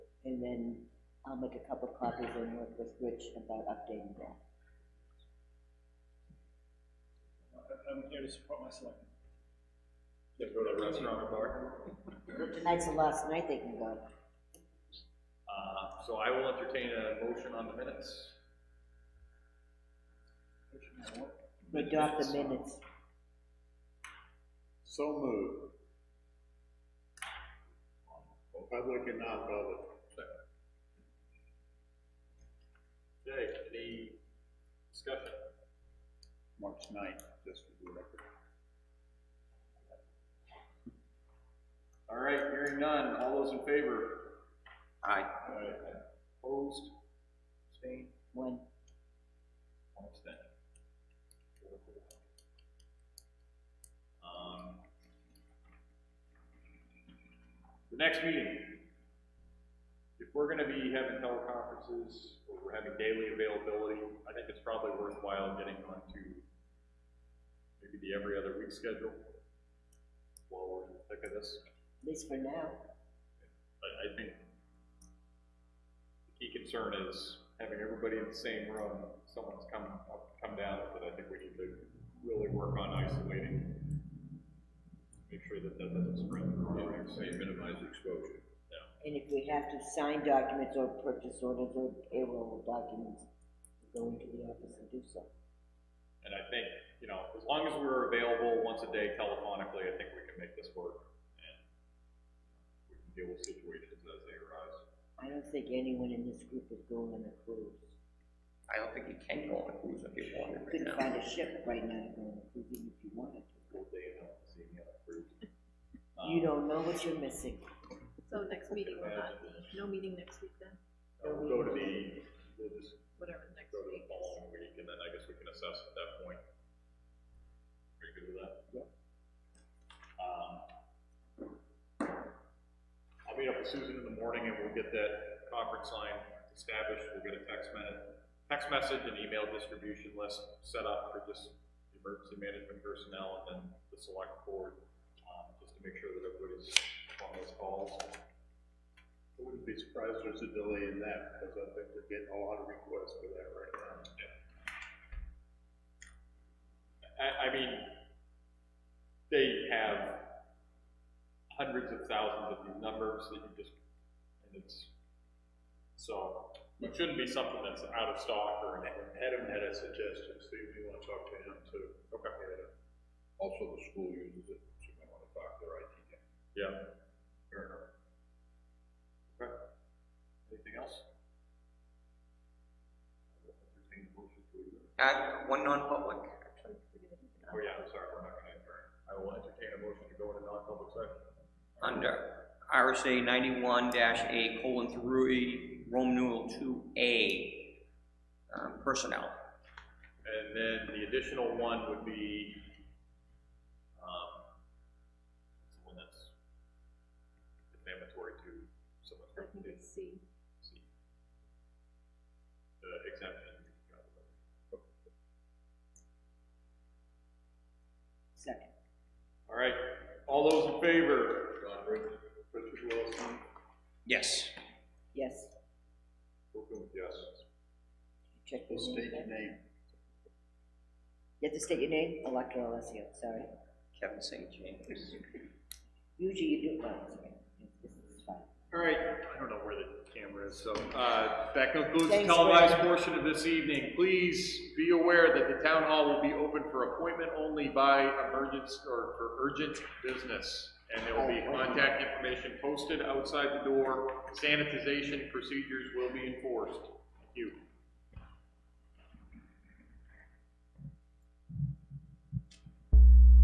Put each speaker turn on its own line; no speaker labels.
And then I'll make a couple of copies and work with Rich about updating that.
I'm here to support my selectmen.
You have to go to a restaurant or bar.
Well, Tonight's the last night they can go.
Uh, so I will entertain a motion on the minutes.
We adopt the minutes.
So moved. Public and non-public.
Okay, any discussion?
March ninth, just for the record.
All right, hearing none, all those in favor?
Aye.
Opposed? Abstained?
One,
One abstention. Um, The next meeting, if we're gonna be having teleconferences, or we're having daily availability, I think it's probably worthwhile getting onto maybe the every other week schedule while we're in the thick of this.
at least for now.
But I think the key concern is having everybody in the same room, someone's come, up- come down with it, I think we need to really work on isolating. Make sure that that doesn't spread through. Say minimize exposure.
And if we have to sign documents or purchase orders or payroll documents, go into the office and do so.
And I think, you know, as long as we're available once a day telephonically, I think we can make this work. And we can deal with situations as they arise.
I don't think anyone in this group is going on a cruise.
I don't think you can go on a cruise if you wanted right
Couldn't
now.
find a ship right now to go on a cruise even if you wanted to.
Full day and not seeing the other crew.
You
Um,
don't know what you're missing.
So next meeting will not be, no meeting next week then,
We'll uh, go to the, we'll just
whatever the next
go to the
week is.
following week, and then I guess we can assess at that point. Are you good with that? Yep. Um, I'll meet up with Susan in the morning, and we'll get that conference line established, we'll get a text men, text message and email distribution list set up for just the emergency management personnel, and then the select board, um, just to make sure that everybody's on those calls.
I wouldn't be surprised if there's a delay in that, because I think we're getting a lot of requests for that right now.
I, I mean, they have hundreds of thousands of these numbers that you just, and it's, so, it shouldn't be something that's out of stock or anything.
Adam had a suggestion, Steve, you wanna talk to him too? Okay. Also, the school uses it, so you might wanna talk to their IT guy.
Yeah. Fair enough. Okay. Anything else? Entertain a motion to adjourn.
Uh, one non-public,
Oh, yeah, I'm sorry, we're not gonna adjourn. I will entertain a motion to go into non-public session.
under RSA ninety-one dash A colon three, Roman numeral two A, um, personnel.
And then the additional one would be, um, it's the one that's defamatory to someone's
I think it's C.
reputation. The exemption.
Second.
All right, all those in favor?
Richard Wilson,
Yes.
Yes,
Wilkins, yes.
check your
will
name.
state
there.
your name.
You have to state your name, Electra Alessio, sorry.
Kevin St. James.
Usually you do, well, it's okay. This is fine.
All right, I don't know where the camera is, so, uh, that concludes the
Thanks, Will.
televised portion of this evening. Please be aware that the town hall will be open for appointment only by emergence or for urgent business. And there will be contact information posted outside the door, sanitization procedures will be enforced.